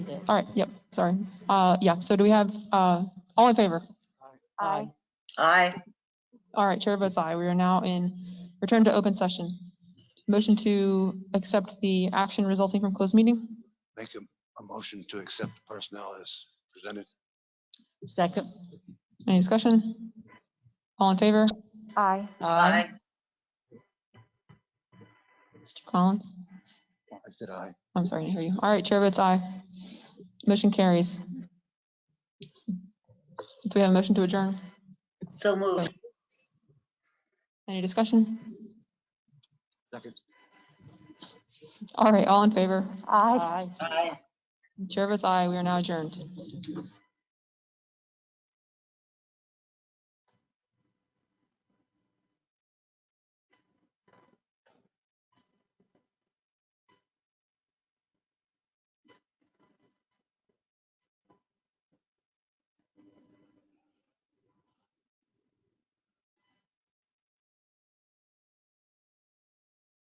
Yes. All right, yep, sorry. Uh, yeah, so do we have, uh, all in favor? Aye. Aye. All right, chair votes aye. We are now in return to open session. Motion to accept the action resulting from closed meeting. Make a, a motion to accept personnel as presented. Second. Any discussion? All in favor? Aye. Aye. Mr. Collins? I said aye. I'm sorry, I didn't hear you. All right, chair votes aye. Motion carries. Do we have a motion to adjourn? So moved. Any discussion? Second. All right, all in favor? Aye. Aye. Chair votes aye. We are now adjourned.